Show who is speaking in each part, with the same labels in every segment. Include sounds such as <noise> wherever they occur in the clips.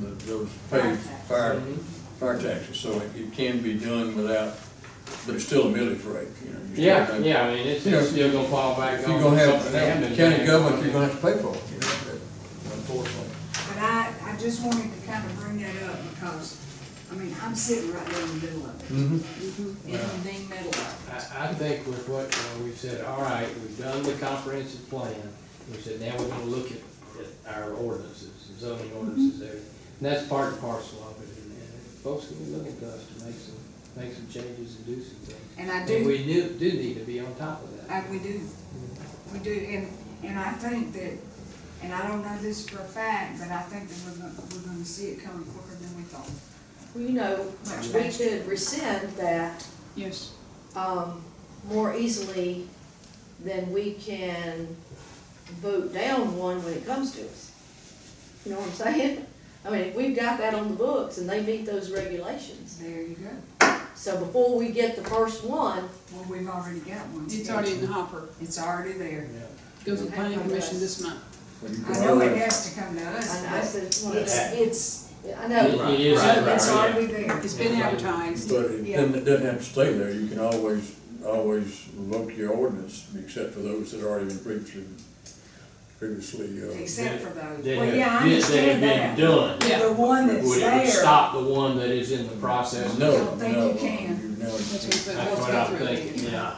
Speaker 1: those paid
Speaker 2: Fire
Speaker 1: fire, fire taxes, so it, it can be done without, but it's still a millage rate, you know. you still
Speaker 3: Yeah,
Speaker 1: have-
Speaker 3: yeah, I mean, it's,
Speaker 1: You know,
Speaker 3: it's still gonna fall back
Speaker 1: If
Speaker 3: on.
Speaker 1: you're gonna have,
Speaker 3: something they haven't
Speaker 1: now,
Speaker 3: done.
Speaker 1: county government, you're gonna have to pay for it, you know, that- unfortunately.
Speaker 2: But I, I just wanted to kind of bring that up because, I mean, I'm sitting right there in the middle of it, Mm-hmm. in the middle of
Speaker 3: I, I think with what, uh, we've said, all right, we've done the comprehensive plan, we said, now we're gonna look at, at our ordinances, the zoning ordinances
Speaker 2: Mm-hmm.
Speaker 3: there. And that's part and parcel of it, and, and folks will be looking to us to make some, make some changes and do some
Speaker 2: it.
Speaker 3: things.
Speaker 2: And I
Speaker 3: And
Speaker 2: do,
Speaker 3: we do, do need to be on top of that.
Speaker 2: I, we do, we do, and, and I think that, and I don't know this for a fact, but I think that we're gonna, we're gonna see it coming quicker than we thought.
Speaker 4: Well, you know, we could rescind that,
Speaker 2: Yes.
Speaker 4: um, more easily than we can vote down one when it comes to us. You know what I'm saying? <laughs> I mean, if we've got that on the books and they meet those regulations.
Speaker 2: There you go.
Speaker 4: So before we get the first one,
Speaker 2: Well, we've already got one.
Speaker 5: It's already in the hopper,
Speaker 2: It's already there.
Speaker 3: Yeah.
Speaker 5: goes to the planning commission this month.
Speaker 1: Well, you can
Speaker 2: I know it
Speaker 1: always-
Speaker 2: has to come to us,
Speaker 4: I I
Speaker 2: but
Speaker 4: said, it's one of
Speaker 2: it's,
Speaker 4: the-
Speaker 2: it's,
Speaker 4: I know,
Speaker 3: It is,
Speaker 5: Right,
Speaker 2: it's
Speaker 3: yeah.
Speaker 2: already there.
Speaker 5: It's been advertised.
Speaker 1: But it doesn't, it doesn't have to stay there, you can always, always revoke your ordinance, except for those that already been previously, previously, uh.
Speaker 2: Except for those.
Speaker 3: They
Speaker 2: Well,
Speaker 3: have-
Speaker 2: yeah, I
Speaker 3: yes, they
Speaker 2: understand
Speaker 3: have
Speaker 2: that.
Speaker 3: been done.
Speaker 5: Yeah.
Speaker 2: The one
Speaker 3: Would it
Speaker 2: that's
Speaker 3: would
Speaker 2: there,
Speaker 3: stop the one that is in the process?
Speaker 1: No,
Speaker 2: don't think
Speaker 1: no, uh,
Speaker 2: you can.
Speaker 1: you know,
Speaker 5: That's what we said,
Speaker 3: That's
Speaker 5: let's
Speaker 3: what
Speaker 5: go
Speaker 3: I'm
Speaker 5: through it.
Speaker 3: thinking, yeah.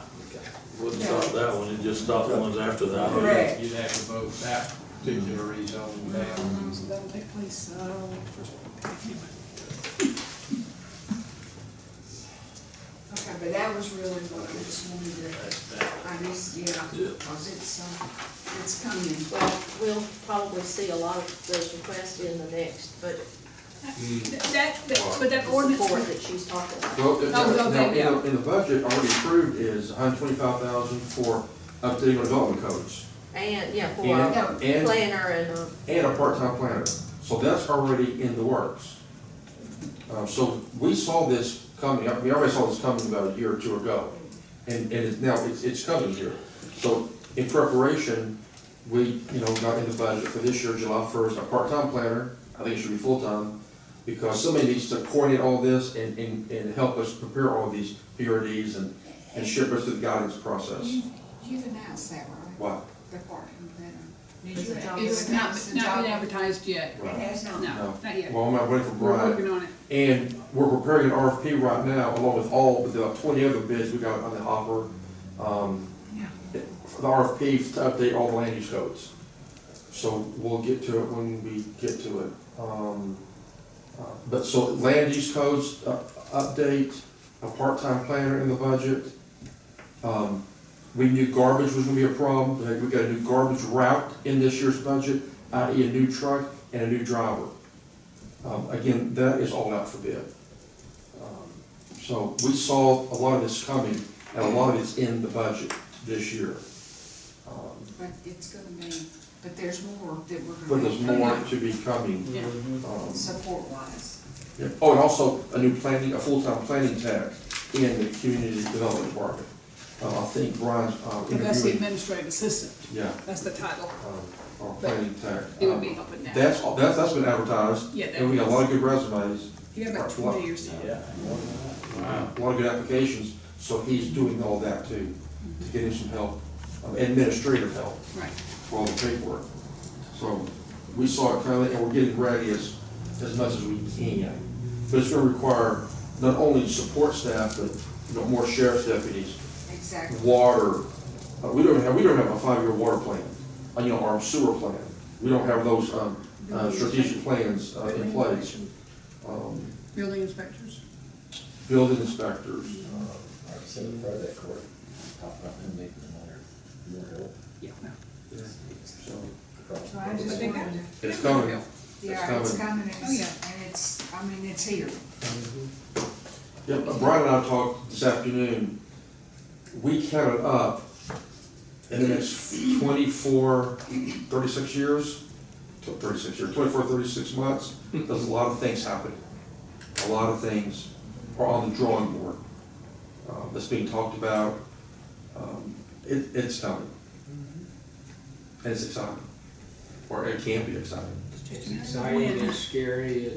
Speaker 6: Wouldn't stop that one, it just stopped the ones after that.
Speaker 2: Correct.
Speaker 3: You'd have to vote that particular rezone down.
Speaker 5: Um, So that'll take place, uh, first one.
Speaker 2: okay, but that was really what I just wanted to, I just, yeah, cause it's, uh, it's coming.
Speaker 4: well, we'll probably see a lot of those requests in the next budget
Speaker 5: That, that- but that ordinance,
Speaker 4: report that she's talking about.
Speaker 7: Well, it-
Speaker 5: Oh, well,
Speaker 7: no, in
Speaker 5: yeah.
Speaker 7: the, in the budget already approved is hundred twenty-five thousand for updating our development codes
Speaker 4: And, yeah, for
Speaker 7: And-
Speaker 4: a
Speaker 7: and-
Speaker 4: planner and um, a
Speaker 7: and a part-time planner. So that's already in the works. Uh, so we saw this coming, we already saw this coming about a year or two ago. And, and it's now, it's, it's coming here. So in preparation, we, you know, got in the budget for this year, July first, a part-time planner, I think it should be full-time, because somebody needs to coordinate all this and, and, and help us prepare all these PRDs and, and ship us through the guidance process.
Speaker 2: You, you've announced that, right?
Speaker 7: Wow.
Speaker 2: The part in that. Did
Speaker 4: It's
Speaker 2: you
Speaker 4: a job
Speaker 2: you
Speaker 5: it's
Speaker 4: description.
Speaker 2: announce
Speaker 5: not,
Speaker 2: the
Speaker 5: not
Speaker 2: job?
Speaker 5: been advertised yet.
Speaker 2: It has not.
Speaker 5: No, not yet.
Speaker 7: Well, I'm not waiting for
Speaker 5: We're
Speaker 7: Brian.
Speaker 5: working on it.
Speaker 7: And we're preparing an RFP right now, along with all, with about twenty other bids we got on the offer, um,
Speaker 2: Yeah.
Speaker 7: for the RFP to update all the land use codes. So we'll get to it when we get to it. Um, uh, but so land use codes, uh, update, a part-time planner in the budget. Um, we knew garbage was gonna be a problem, but we got a new garbage route in this year's budget, i.e. a new truck and a new driver. Um, again, that is all out for bid. Um, So we saw a lot of this coming, and a lot of it's in the budget this year. Um,
Speaker 2: But it's gonna be, but there's more that we're
Speaker 7: But
Speaker 2: gonna
Speaker 7: there's
Speaker 2: be
Speaker 7: more to be coming.
Speaker 5: Yeah.
Speaker 7: Um,
Speaker 2: support wise.
Speaker 7: yeah. Oh, and also a new planning, a full-time planning tax in the community development department. Uh, I think Brian's uh,
Speaker 5: That's the
Speaker 7: interviewing,
Speaker 5: administrative assistant,
Speaker 7: yeah,
Speaker 5: that's the title.
Speaker 7: um, our
Speaker 5: But
Speaker 7: planning tax.
Speaker 5: It would be open now.
Speaker 7: That's, all- that's, that's been advertised,
Speaker 5: Yeah,
Speaker 7: and we got a lot of good resumes.
Speaker 5: You got about
Speaker 7: Or what?
Speaker 5: twenty or so.
Speaker 6: Yeah. Wow.
Speaker 7: a lot of good applications, so he's doing all that too, to get him some help, um, administrative help
Speaker 5: Right.
Speaker 7: for all the paperwork. So we saw it coming, and we're getting ready as, as much as we can. But it's gonna require not only support staff, but, you know, more sheriff's deputies,
Speaker 2: Exactly.
Speaker 7: water. Uh, We don't have, we don't have a five-year water plan, uh, you know, our sewer plan. We don't have those, um, uh, strategic plans uh, in place. Um,
Speaker 5: Building inspectors.
Speaker 7: Building inspectors, uh,
Speaker 8: Our civic project court, top up and make them under more help.
Speaker 5: Yeah. no.
Speaker 7: so.
Speaker 2: So I just
Speaker 5: But they
Speaker 2: wanted
Speaker 5: got-
Speaker 2: to.
Speaker 7: It's coming.
Speaker 2: Yeah, it's coming,
Speaker 5: Oh,
Speaker 2: and
Speaker 5: yeah.
Speaker 2: it's, and it's, I mean, it's here.
Speaker 7: Yeah, but Brian and I talked this afternoon, we counted up in the next 24, 36 years, tw- thirty-six years, 24, 36 months, there's a lot of things happening. A lot of things are on the drawing board, uh, that's being talked about, um, it, it's coming. And it's exciting, or it can be exciting.
Speaker 3: It's exciting, it's scary,